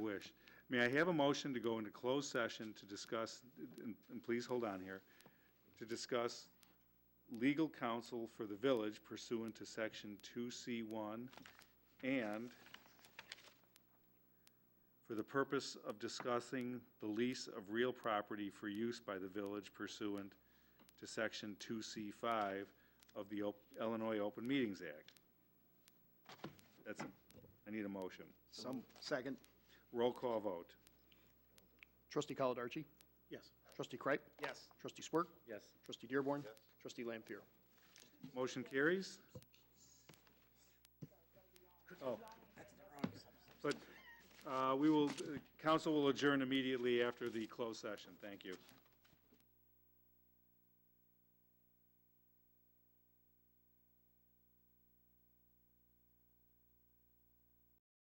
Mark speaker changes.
Speaker 1: wish. May I have a motion to go into closed session to discuss, and and please hold on here, to discuss legal counsel for the village pursuant to Section 2C1 and for the purpose of discussing the lease of real property for use by the village pursuant to Section 2C5 of the Op- Illinois Open Meetings Act. That's, I need a motion.
Speaker 2: Some, second.
Speaker 1: Roll call vote.
Speaker 2: Trustee Caladarchi?
Speaker 3: Yes.
Speaker 2: Trustee Kreip?
Speaker 3: Yes.
Speaker 2: Trustee Swerk?
Speaker 1: Yes.
Speaker 2: Trustee Dearborn? Trustee Lampier?
Speaker 1: Motion carries. Oh. But uh, we will, uh, council will adjourn immediately after the closed session. Thank you.